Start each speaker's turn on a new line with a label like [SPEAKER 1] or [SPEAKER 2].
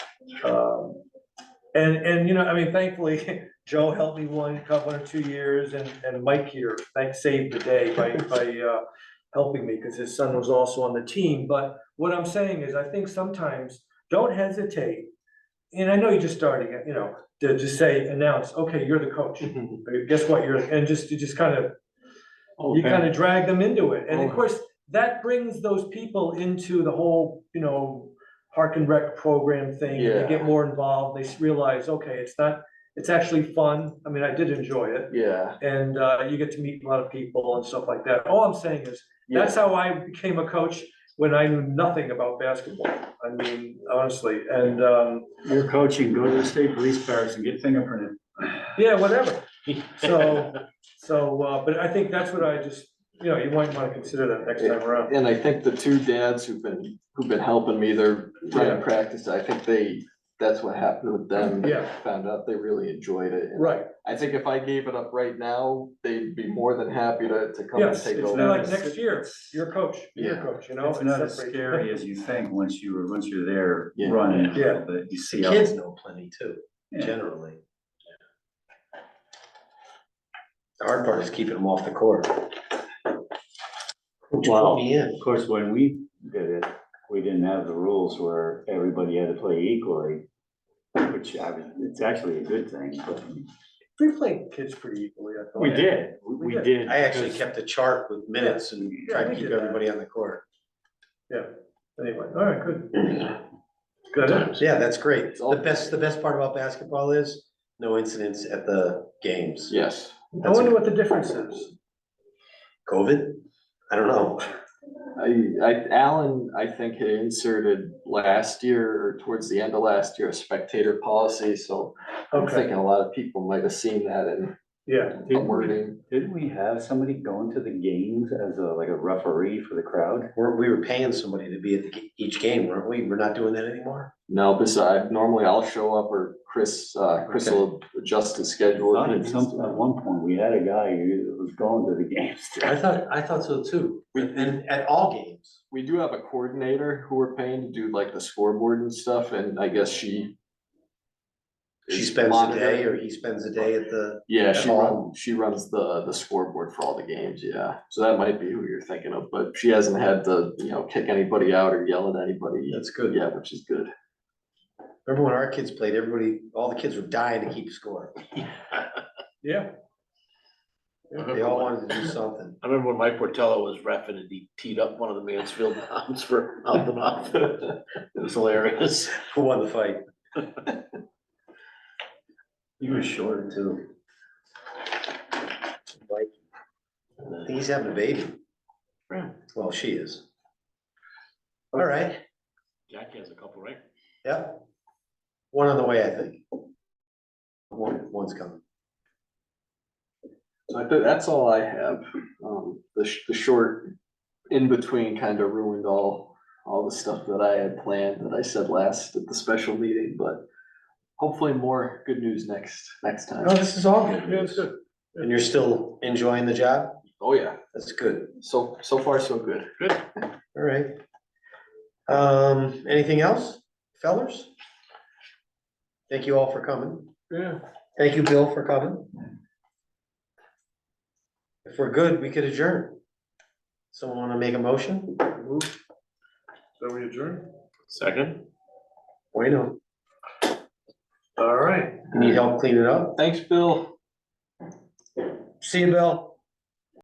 [SPEAKER 1] Um, And, and, you know, I mean, thankfully, Joe helped me one, couple or two years, and, and Mike here, thanks, saved the day by, by, uh, helping me, because his son was also on the team, but what I'm saying is, I think sometimes, don't hesitate. And I know you're just starting, it, you know, to just say, announce, okay, you're the coach,
[SPEAKER 2] Mm-hmm.
[SPEAKER 1] Or guess what, you're, and just, you just kind of, you kind of drag them into it, and of
[SPEAKER 2] Oh.
[SPEAKER 1] course, that brings those people into the whole, you know, park and rec program thing, they get
[SPEAKER 2] Yeah.
[SPEAKER 1] more involved, they s- realize, okay, it's not, it's actually fun, I mean, I did enjoy it,
[SPEAKER 2] Yeah.
[SPEAKER 1] and, uh, you get to meet a lot of people and stuff like that, all I'm saying is, that's how I became a coach when I knew nothing about basketball. I mean, honestly, and, um,
[SPEAKER 3] You're coaching, go to the state police barracks and get fingerprinted.
[SPEAKER 1] yeah, whatever. So, so, uh, but I think that's what I just, you know, you might wanna consider that next time around.
[SPEAKER 2] And I think the two dads who've been, who've been helping me, they're trying
[SPEAKER 1] Yeah.
[SPEAKER 2] to practice, I think they, that's what happened with them.
[SPEAKER 1] Yeah.
[SPEAKER 2] Found out they really enjoyed it. And
[SPEAKER 1] Right,
[SPEAKER 2] I think if I gave it up right now, they'd be more than happy to, to come and
[SPEAKER 1] yes,
[SPEAKER 2] take
[SPEAKER 1] it's
[SPEAKER 2] over.
[SPEAKER 1] like next year, you're a coach, you're a
[SPEAKER 2] Yeah.
[SPEAKER 1] coach, you know?
[SPEAKER 3] It's not as
[SPEAKER 1] separate.
[SPEAKER 3] scary as you think once you were, once you're there
[SPEAKER 2] Yeah.
[SPEAKER 3] running a
[SPEAKER 1] Yeah.
[SPEAKER 3] little bit, you see. how-
[SPEAKER 4] Kids know plenty too,
[SPEAKER 3] Yeah.
[SPEAKER 4] generally. The hard part is keeping them off the court. Which
[SPEAKER 5] Wow.
[SPEAKER 4] will be in.
[SPEAKER 5] Of course, when we did it, we didn't have the rules where everybody had to play equally, which I mean, it's actually a good thing, but
[SPEAKER 1] We play kids pretty equally, I thought.
[SPEAKER 5] we did, we
[SPEAKER 1] We
[SPEAKER 5] we did.
[SPEAKER 4] I actually
[SPEAKER 5] because-
[SPEAKER 4] kept a chart with minutes and
[SPEAKER 1] Yeah,
[SPEAKER 4] tried
[SPEAKER 1] we
[SPEAKER 4] to keep
[SPEAKER 1] did that.
[SPEAKER 4] everybody on the court.
[SPEAKER 1] Anyway, all right, good, good.
[SPEAKER 4] So yeah, that's great.
[SPEAKER 2] It's all-
[SPEAKER 4] The best, the best part about basketball is no incidents at the games.
[SPEAKER 2] Yes,
[SPEAKER 1] I wonder what the difference is.
[SPEAKER 4] COVID? I don't know.
[SPEAKER 2] I, I, Alan, I think had inserted last year, or towards the end of last year, a spectator policy, so I'm
[SPEAKER 1] Okay,
[SPEAKER 2] thinking a lot of people might have seen that in
[SPEAKER 1] yeah,
[SPEAKER 2] the
[SPEAKER 5] Didn't we-
[SPEAKER 2] wording.
[SPEAKER 5] didn't we have somebody going to the games as a, like a referee for the crowd?
[SPEAKER 4] We're, we were paying somebody to be at the ga- each game, weren't we? We're not doing that anymore?
[SPEAKER 2] No, besides, normally I'll show up or Chris, uh, Chris
[SPEAKER 5] Okay.
[SPEAKER 2] will adjust the schedule.
[SPEAKER 5] Thought at some, at one point, we had a guy who was going to the games.
[SPEAKER 4] I thought, I thought so too.
[SPEAKER 2] We-
[SPEAKER 4] And at all games.
[SPEAKER 2] We do have a coordinator who we're paying to do like the scoreboard and stuff, and I guess she.
[SPEAKER 4] She
[SPEAKER 2] is
[SPEAKER 4] spends a
[SPEAKER 2] monitoring.
[SPEAKER 4] day or he spends a day at the,
[SPEAKER 2] Yeah, she
[SPEAKER 4] at
[SPEAKER 2] runs,
[SPEAKER 4] home.
[SPEAKER 2] she runs the, the scoreboard for all the games, yeah, so that might be who you're thinking of, but she hasn't had to, you know, kick anybody out or yell at anybody
[SPEAKER 4] that's good.
[SPEAKER 2] yet, which is good.
[SPEAKER 4] Remember when our kids played, everybody, all the kids were dying to keep score.
[SPEAKER 1] yeah.
[SPEAKER 4] They all wanted to do something.
[SPEAKER 5] I remember when Mike Portello was reffing and he teed up one of the Mansfield bombs for out the mouth. It was hilarious.
[SPEAKER 4] Who won the fight?
[SPEAKER 5] You were short too.
[SPEAKER 4] I think he's having a baby.
[SPEAKER 5] Really?
[SPEAKER 4] Well, she is. All right,
[SPEAKER 5] Jack has a couple, right?
[SPEAKER 4] yep. One on the way, I think. One, one's coming.
[SPEAKER 2] So I think that's all I have. Um, the, sh- the short in-between kind of ruined all, all the stuff that I had planned that I said last at the special meeting, but hopefully more good news next, next
[SPEAKER 4] No,
[SPEAKER 2] time.
[SPEAKER 4] Oh, this is all good.
[SPEAKER 1] Yeah, it's
[SPEAKER 4] news.
[SPEAKER 1] good.
[SPEAKER 4] And you're still enjoying the job?
[SPEAKER 2] Oh, yeah.
[SPEAKER 4] That's good.
[SPEAKER 2] So, so far, so good.
[SPEAKER 4] All right. Um, anything else, fellers? Thank you all for coming.
[SPEAKER 1] Yeah.
[SPEAKER 4] Thank you, Bill, for coming. If we're good, we could adjourn. Someone wanna make a motion?
[SPEAKER 1] Move. So we adjourn?
[SPEAKER 5] Second?
[SPEAKER 4] Wait, no,
[SPEAKER 1] All right.
[SPEAKER 4] need help cleaning up?
[SPEAKER 2] Thanks, Bill.
[SPEAKER 4] See you, Bill.